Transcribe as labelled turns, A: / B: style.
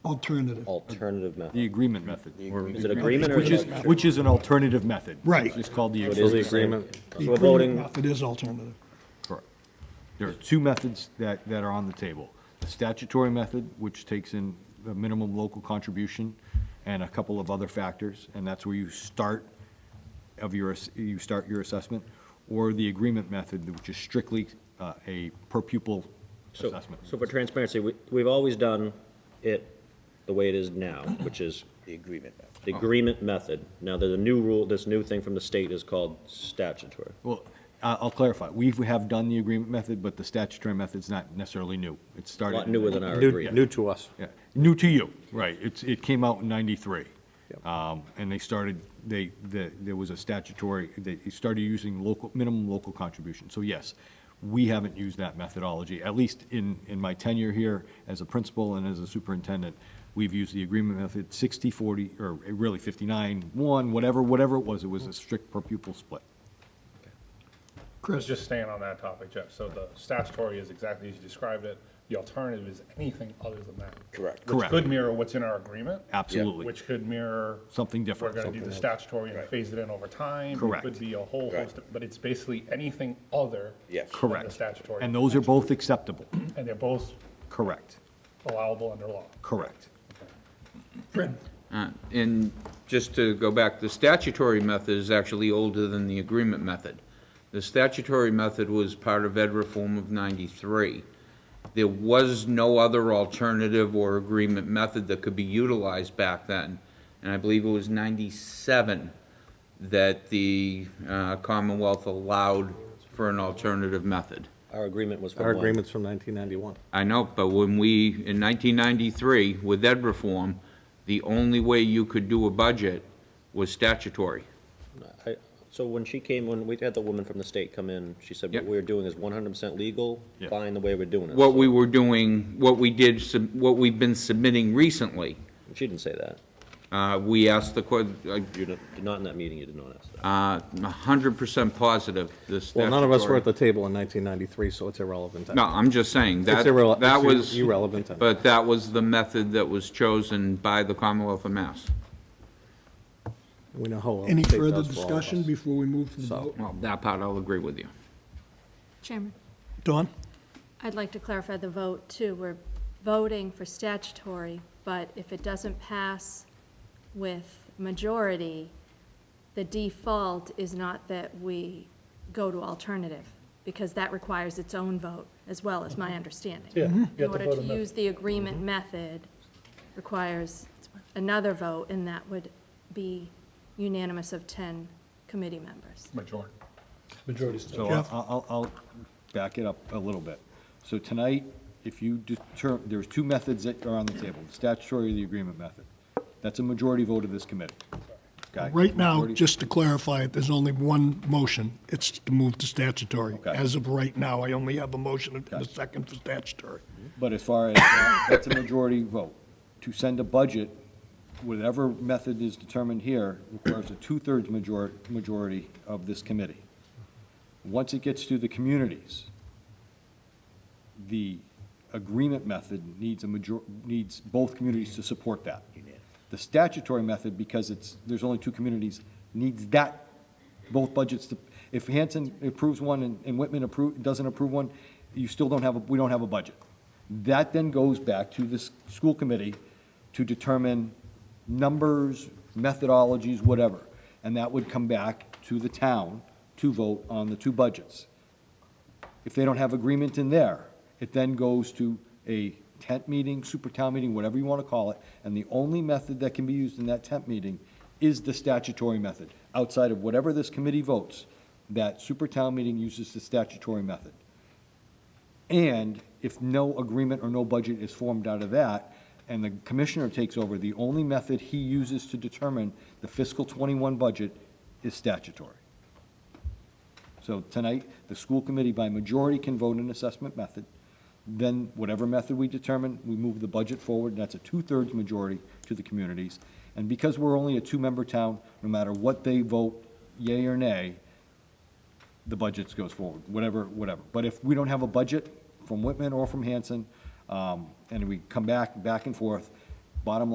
A: alternative.
B: alternative method.
C: The agreement method. or-
B: Is it agreement or
C: Which is,
B: agreement?
C: which is an alternative method.
A: Right.
C: It's called the.
B: It is the
C: agreement.
B: same.
A: The
B: So we're
A: agreement
B: voting,
A: method is alternative.
C: Correct. There are two methods that, that are on the table. The statutory method, which takes in the minimum local contribution and a couple of other factors, and that's where you start of your, ass- you start your assessment, or the agreement method, which is strictly uh, a per pupil
B: so,
C: assessment.
B: so for transparency, we, we've always done it the way it is now, which is
D: The agreement.
B: the agreement method. Now, there's a new rule, this new thing from the state is called statutory.
C: Well, I- I'll clarify. We have done the agreement method, but the statutory method's not necessarily new. It
B: A
C: started.
B: lot newer than our
D: New,
B: agreement.
D: new to us.
C: Yeah, new to you, right, it's, it came out in ninety-three. Um, and they started, they, the, there was a statutory, they started using local, minimum local contribution, so yes, we haven't used that methodology, at least in, in my tenure here as a principal and as a superintendent, we've used the agreement method sixty, forty, or really fifty-nine, one, whatever, whatever it was, it was a strict per pupil split.
A: Chris,
E: Just staying on that topic, Jeff, so the statutory is exactly as you described it, the alternative is anything other than that.
D: Correct.
E: Which
C: Correct.
E: could mirror what's in our agreement.
C: Absolutely.
E: Which could mirror.
C: Something different.
E: We're gonna do the statutory and
D: Right.
E: phase it in over time.
C: Correct.
E: It could be a whole
D: Right.
E: host, of- but it's basically anything other.
D: Yes.
E: than The
C: Correct.
E: statutory.
C: And those are both acceptable,
E: And they're both
C: correct,
E: allowable under law.
C: correct.
F: Uh, And just to go back, the statutory method is actually older than the agreement method. The statutory method was part of Ed Reform of 93. There was no other alternative or agreement method that could be utilized back then. And I believe it was 97 that the uh, Commonwealth allowed for an alternative method.
B: Our agreement was from
D: Our
B: one.
D: agreement's from 1991.
F: I know, but when we, in 1993, with ed reform, the only way you could do a budget was statutory.
B: I- So when she came, when we had the woman from the state come in, she said, what
F: Yep.
B: we're doing is one hundred percent legal,
C: Yeah.
B: fine the way we're doing it.
F: What
B: So-
F: we were doing, what we did, sub- what we've been submitting recently,
B: She didn't say that.
F: uh, we asked the, que-
B: You did not in that meeting, you did not ask that.
F: uh, 100% positive, the
D: Well, none of us were
F: statutory-
D: at the table in 1993, so it's irrelevant.
F: No, I'm just saying, that,
D: irrele-
F: that
D: it's
F: was.
D: irrelevant anyway.
F: But that was the method that was chosen by the Commonwealth of Mass.
D: We know how well the
A: any
D: state
A: further
D: does for all of
A: discussion
D: us.
A: before we move to the
D: So-
A: vote?
F: Well, that part I'll agree with you.
G: Chairman,
A: Dawn?
G: I'd like to clarify the vote, too. We're voting for statutory, but if it doesn't pass with majority, the default is not that we go to alternative, because that requires its own vote, as well as my understanding. In order to use the agreement method requires another vote, and that would be unanimous of 10 committee members.
E: Majority.
C: So I'll,
A: Jeff?
C: I'll, I'll back it up a little bit. So tonight, if you determine, there's two methods that are on the table, the statutory or the agreement method. That's a majority vote of this committee. Okay?
A: Right now,
C: Majority-
A: just to clarify it, there's only one motion. It's to move to statutory.
C: Okay.
A: As of right now, I only have a motion and a second for statutory.
C: But as far as, that, that's a majority vote. To send a budget, whatever method is determined here, requires a two-thirds majority, majority of this committee. Once it gets to the communities, the agreement method needs a major, needs both communities to support that. The statutory method, because it's, there's only two communities, needs that, both budgets to, if Hanson approves one and- and Whitman approve, doesn't approve one, you still don't have, a we don't have a budget. That then goes back to this school committee to determine numbers, methodologies, whatever. And that would come back to the town to vote on the two budgets. If they don't have agreement in there, it then goes to a tent meeting, super town meeting, whatever you want to call it, and the only method that can be used in that tent meeting is the statutory method. Outside of whatever this committee votes, that super town meeting uses the statutory method. And if no agreement or no budget is formed out of that, and the commissioner takes over, the only method he uses to determine the fiscal twenty-one budget is statutory. So tonight, the school committee by majority can vote an assessment method. Then whatever method we determine, we move the budget forward, and that's a two-thirds majority to the communities. And because we're only a two-member town, no matter what they vote, yea or nay, the budget goes forward, whatever, whatever. But if we don't have a budget from Whitman or from Hanson, um, and we come back, back and forth, Bottom